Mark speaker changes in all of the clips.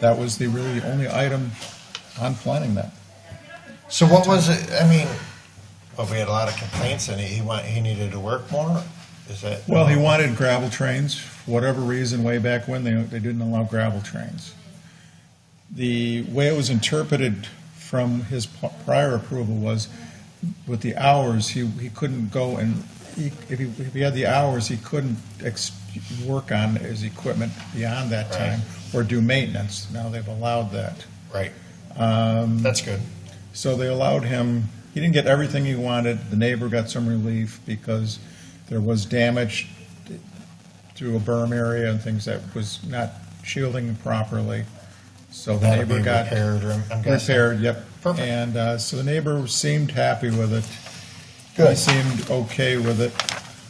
Speaker 1: that was the really only item on planning that.
Speaker 2: So what was it, I mean, well, we had a lot of complaints and he went, he needed to work more, is that?
Speaker 1: Well, he wanted gravel trains, for whatever reason, way back when, they, they didn't allow gravel trains. The way it was interpreted from his p- prior approval was with the hours, he, he couldn't go and, he- if he, if he had the hours, he couldn't ex, work on his equipment beyond that time or do maintenance. Now they've allowed that.
Speaker 2: Right.
Speaker 1: um,
Speaker 2: That's good.
Speaker 1: So they allowed him, he didn't get everything he wanted. The neighbor got some relief because there was damage through a berm area and things that was not shielding properly. So the
Speaker 2: That'll be
Speaker 1: neighbor got
Speaker 2: repaired, or I'm guessing.
Speaker 1: repaired, yep.
Speaker 2: Perfect.
Speaker 1: And uh, so the neighbor seemed happy with it. He
Speaker 2: Good.
Speaker 1: seemed okay with it.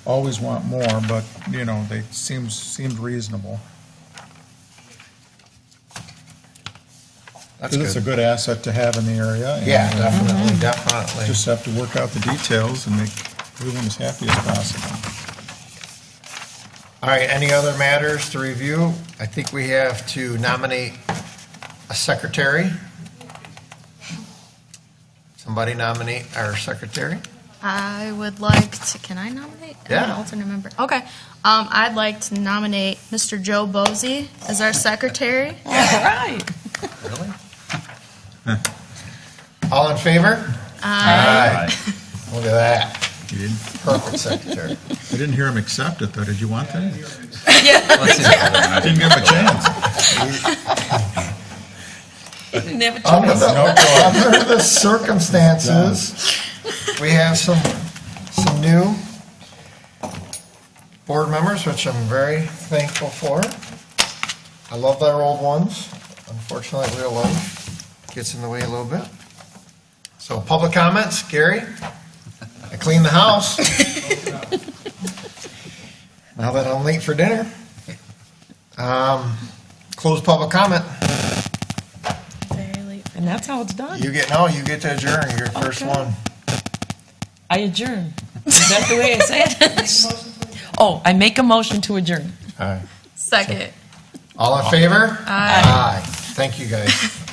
Speaker 1: Always want more, but, you know, they seemed, seemed reasonable.
Speaker 2: That's
Speaker 1: Because it's a
Speaker 2: good.
Speaker 1: good asset to have in the area. and,
Speaker 2: Yeah,
Speaker 1: uh,
Speaker 2: definitely, definitely.
Speaker 1: Just have to work out the details and make everyone as happy as possible.
Speaker 2: All right, any other matters to review? I think we have to nominate a secretary. Somebody nominate our secretary?
Speaker 3: I would like to, can I nominate? I'm an
Speaker 2: Yeah.
Speaker 3: alternate member. Okay. Um, I'd like to nominate Mr. Joe Bosey as our secretary.
Speaker 4: Right.
Speaker 2: Really? All in favor? Aye. Look at that,
Speaker 1: You didn't,
Speaker 2: perfect secretary.
Speaker 1: I didn't hear him accept it, though. Did you want that?
Speaker 5: Let's see.
Speaker 1: Didn't give him a chance.
Speaker 4: Never
Speaker 2: Under
Speaker 4: chose.
Speaker 2: the, under the circumstances, we have some, some new board members, which I'm very thankful for. I love their old ones. Unfortunately, real life gets in the way a little bit. So public comments, Gary? I cleaned the house. Now that I'm late for dinner. Um, Close public comment.
Speaker 4: And that's how it's done.
Speaker 2: You get, no, you get to adjourn, you're the first
Speaker 4: Okay.
Speaker 2: one.
Speaker 4: I adjourn. Is that the way I say it? Oh, I make a motion to adjourn.
Speaker 2: All right.
Speaker 3: Second.
Speaker 2: All in favor?
Speaker 3: Aye.
Speaker 2: Thank you, guys.